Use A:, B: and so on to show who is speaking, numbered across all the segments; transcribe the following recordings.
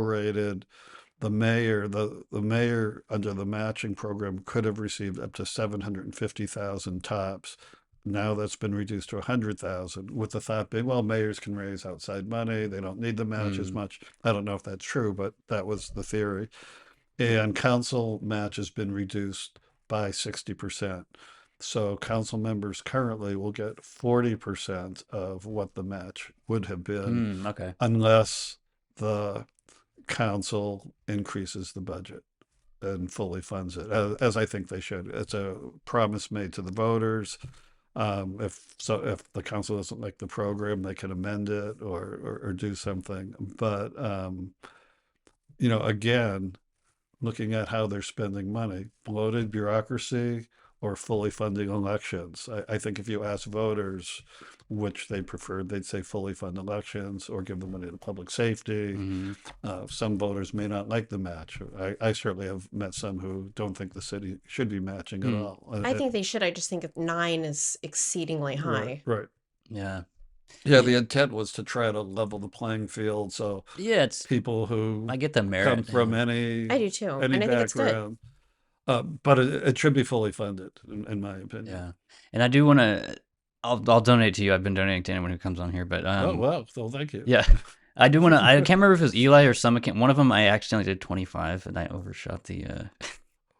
A: prorated, the mayor, the, the mayor under the matching program could have received up to seven hundred and fifty thousand tops. Now that's been reduced to a hundred thousand with the thought being, well, mayors can raise outside money. They don't need the match as
B: Mm.
A: much. I don't know if that's true, but that was the theory. And council match has been reduced by sixty percent. So council members currently will get forty percent of what the match would have been
B: Mm, okay.
A: unless the council increases the budget and fully funds it, as, as I think they should. It's a promise made to the voters. Um, if so, if the council doesn't like the program, they can amend it or or, or do something. But um, you know, again, looking at how they're spending money, bloated bureaucracy or fully funding elections. I, I think if you ask voters which they preferred, they'd say fully fund elections or give the money to public safety.
B: Mhm.
A: Uh, some voters may not like the match. I, I certainly have met some who don't think the city should be matching at
B: Mm.
A: all.
C: I
A: Uh,
C: think they should. I just think nine is exceedingly high.
A: Right, right.
B: Yeah.
A: Yeah, the intent was to try to level the playing field so
B: Yeah. It's.
A: people who
B: I get the merit.
A: come from
B: thing.
A: any
C: I do too.
A: any
C: and I think it's good.
A: background. Uh, but it, it should be fully funded, in, in my opinion.
B: Yeah. And I do want to. I'll I'll donate to you. I've been donating to anyone who comes on here, but um,
A: oh wow! Well, thank you.
B: Yeah. I do want to. I can't remember if it was Eli or some account. One of them, I accidentally did 25 and I overshot the uh,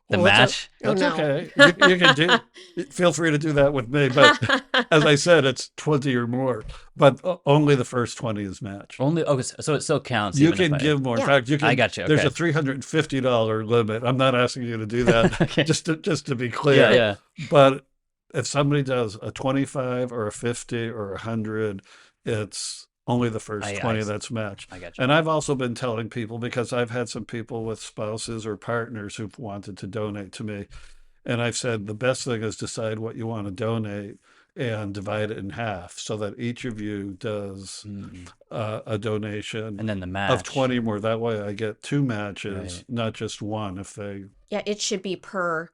B: the
A: Well, that's
B: match.
A: o-
C: Oh,
A: That's,
C: no.
A: okay. You, you can do. Feel free to do that with me, but as I said, it's twenty or more. But o- only the first twenty is matched.
B: Only okay, so- so it still counts.
A: you
B: even if
A: can
B: I-
A: give more. In
C: Yeah.
A: fact, you can.
B: I got you.
A: There's
B: Okay.
A: a three hundred and fifty dollar limit. I'm not asking you to do that.
B: okay.
A: just to just to be
B: yeah,
A: clear.
B: yeah.
A: But if somebody does a twenty five or a fifty or a hundred, it's only the first
B: I- I
A: twenty
B: see.
A: that's matched.
B: I got you.
A: And I've also been telling people because I've had some people with spouses or partners who've wanted to donate to me. And I've said the best thing is decide what you want to donate and divide it in half so that each of you does
B: Mm.
A: uh, a donation
B: And then the match
A: of 20 more. That way I get two matches, not just one if they.
C: yeah, it should be per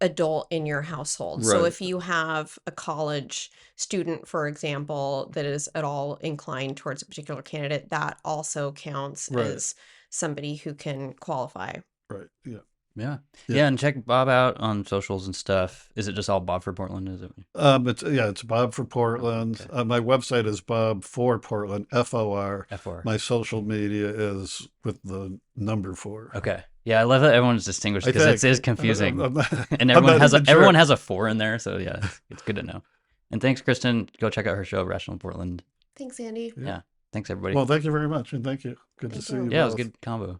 C: adult in your household. So
A: Right.
C: if you have a college student, for example, that is at all inclined towards a particular candidate, that also counts
A: Right.
C: as somebody who can qualify.
A: Right. Yeah.
B: Yeah. yeah,
A: Yeah.
B: and check Bob out on socials and stuff. Is it just all Bob for Portland? Is it?
A: Um, it's, yeah, it's Bob for Portland.
B: Okay.
A: Uh, my website is Bob for Portland, F O R.
B: Fr.
A: My social media is with the number four.
B: okay. Yeah, I love that everyone's distinguished
A: I
B: because it
A: think.
B: is confusing,
A: I'm not- I'm
B: and everyone
A: not
B: has a,
A: even sure.
B: everyone has a four in there. So yeah, it's, it's good to know. And thanks, Kristen. Go check out her show, Rational Portland.
C: Thanks, Andy.
B: Thanks everybody.
A: Well, thank you very much, and thank you. Good to
C: Thank
A: see
C: you.
A: you.
B: yeah, it was a
A: both.
B: good combo.